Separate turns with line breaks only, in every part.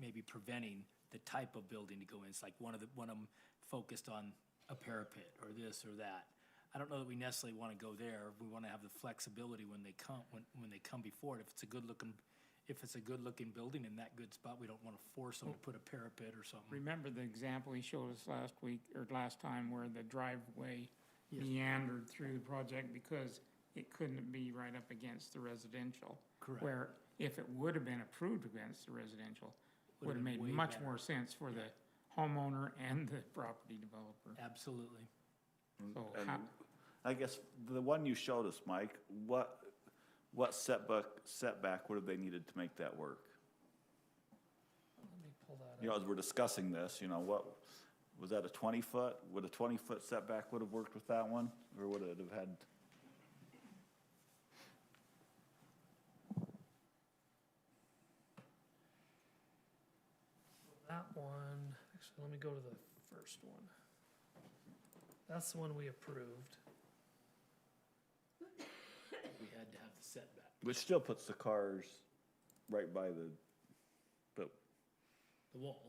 maybe preventing the type of building to go in. It's like one of the, one of them focused on a parapet or this or that. I don't know that we necessarily want to go there. We want to have the flexibility when they come, when, when they come before it. If it's a good looking, if it's a good looking building in that good spot, we don't want to force them to put a parapet or something.
Remember the example he showed us last week, or last time, where the driveway meandered through the project because it couldn't be right up against the residential?
Correct.
Where if it would have been approved against the residential, would have
been
made
way
much
better.
more sense for the homeowner and the property developer.
Absolutely.
So
And
how,
I guess the one you showed us, Mike, what, what setback, setback would have they needed to make that work?
Let me pull that
You know, as we're discussing this, you know, what, was that a twenty foot? Would a twenty foot setback would have worked with that one, or would it have had?
That one, actually, let me go to the first one. That's the one we approved.
We had to have the setback.
Which still puts the cars right by the, but
the wall.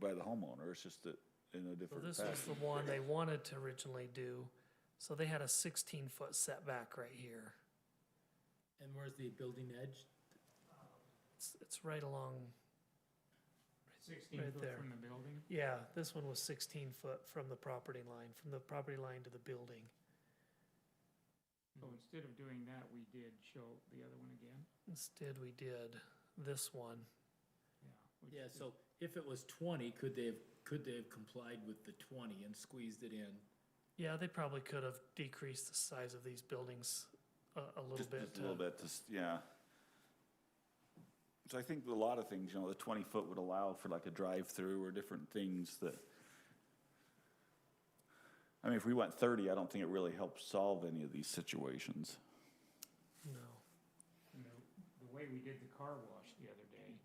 by the homeowner, it's just that in a
So
different
this
fashion.
was the one they wanted to originally do. So they had a sixteen foot setback right here.
And where's the building edge?
It's, it's right along,
sixteen
right
foot
there.
from the building?
yeah, this one was sixteen foot from the property line, from the property line to the building.
So instead of doing that, we did show the other one again?
Instead, we did this one.
Yeah. which
Yeah,
is-
so if it was twenty, could they have, could they have complied with the twenty and squeezed it in?
Yeah, they probably could have decreased the size of these buildings a, a little
Just-
bit
Just a little
to
bit, just, yeah. So I think a lot of things, you know, the twenty foot would allow for like a drive-through or different things that. I mean, if we went thirty, I don't think it really helps solve any of these situations.
No.
And the, the way we did the car wash the other day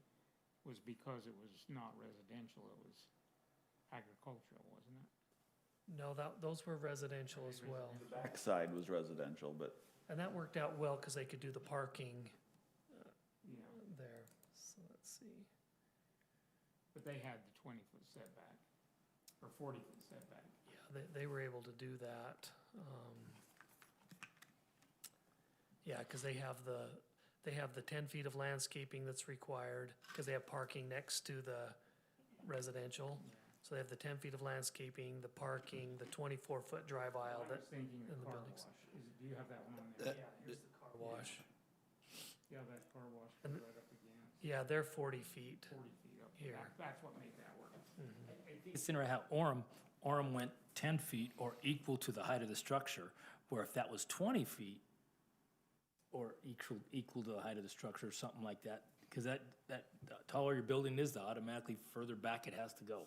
was because it was not residential, it was agricultural, wasn't it?
No, that, those were residential as well.
The backside was residential, but
And that worked out well because they could do the parking
Yeah,
there. So let's see.
but they had the twenty-foot setback, or forty-foot setback.
Yeah, they, they were able to do that. Um, yeah, because they have the, they have the ten feet of landscaping that's required because they have parking next to the residential. So they have the ten feet of landscaping, the parking, the twenty-four foot drive
I
aisle, that
was thinking the
and the
car
buildings.
wash, is, do you have that one on there? Yeah, here's the car
wash.
Yeah, that car wash was
And-
right up against
Yeah, they're forty feet.
forty feet up.
Here.
That- That's what made that work.
It's interesting how Orem, Orem went ten feet or equal to the height of the structure, where if that was twenty feet or equal, equal to the height of the structure or something like that, because that, that, the taller your building is, the automatically further back it has to go.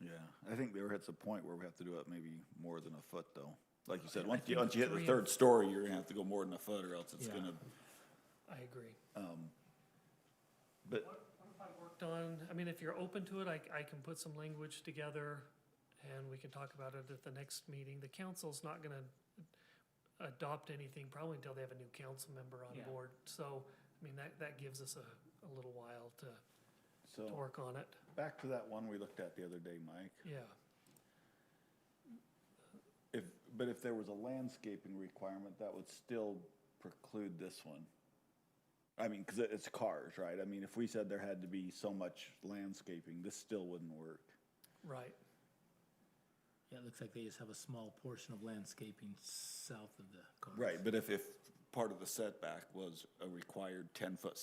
yeah, I think there hits a point where we have to do it maybe more than a foot though. Like you said, once you,
think
once you hit the
three
third story, you're gonna have to go more than a foot or else it's
Yeah.
gonna,
I agree.
but.
worked on, I mean, if you're open to it, I, I can put some language together and we can talk about it at the next meeting. The council's not gonna adopt anything probably until they have a new council member
Yeah.
on board. So, I mean, that, that gives us a, a little while to, to
So,
work on it,
back to that one we looked at the other day, Mike.
yeah.
If, but if there was a landscaping requirement, that would still preclude this one. I mean, because it's cars, right? I mean, if we said there had to be so much landscaping, this still wouldn't work.
Right,
Yeah, it looks like they just have a small portion of landscaping south of the cars.
Right, but if, if part of the setback was a required ten-foot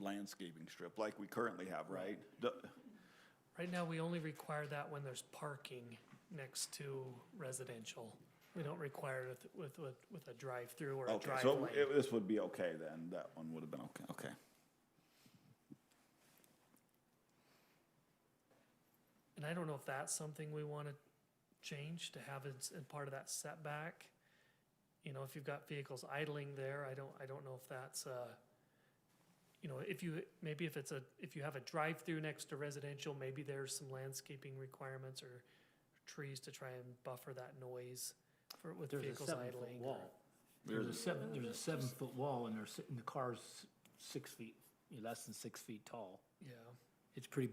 landscaping strip, like we currently have, right? The-
right now, we only require that when there's parking next to residential. We don't require it with, with, with a drive-through or a
Okay,
drive
so
lane.
it- this would be okay then, that one would have been okay, okay.
And I don't know if that's something we wanna change to have as, as part of that setback. You know, if you've got vehicles idling there, I don't, I don't know if that's, uh, you know, if you, maybe if it's a, if you have a drive-through next to residential, maybe there's some landscaping requirements or trees to try and buffer that noise for, with
There's a
vehicles
seven foot
idling. or-
wall. There's a seven, there's a seven foot wall and there's, and the car's six feet, less than six feet tall.
Yeah.
It's pretty